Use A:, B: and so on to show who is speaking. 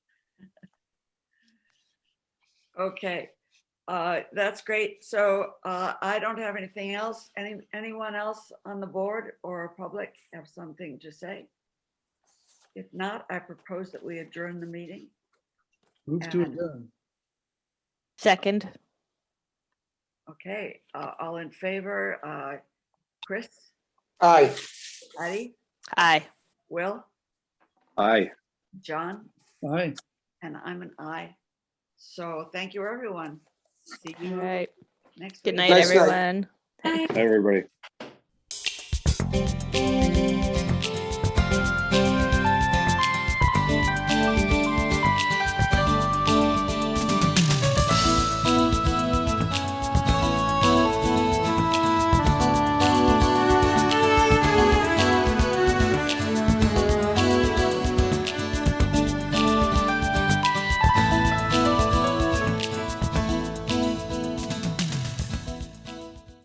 A: Okay, uh, that's great. So, uh, I don't have anything else. Any, anyone else on the board or public have something to say? If not, I propose that we adjourn the meeting.
B: Move to
A: Uh,
B: adjourn.
C: Second,
A: Okay, uh, all in favor, uh, Chris,
D: Aye.
A: Patty,
C: aye.
A: Will,
D: Aye.
A: John,
B: Aye.
A: and I'm an I. So thank you, everyone. See
C: All
A: you
C: right.
A: next.
C: Good
A: week.
C: night,
D: Nice night.
C: everyone.
D: Everybody.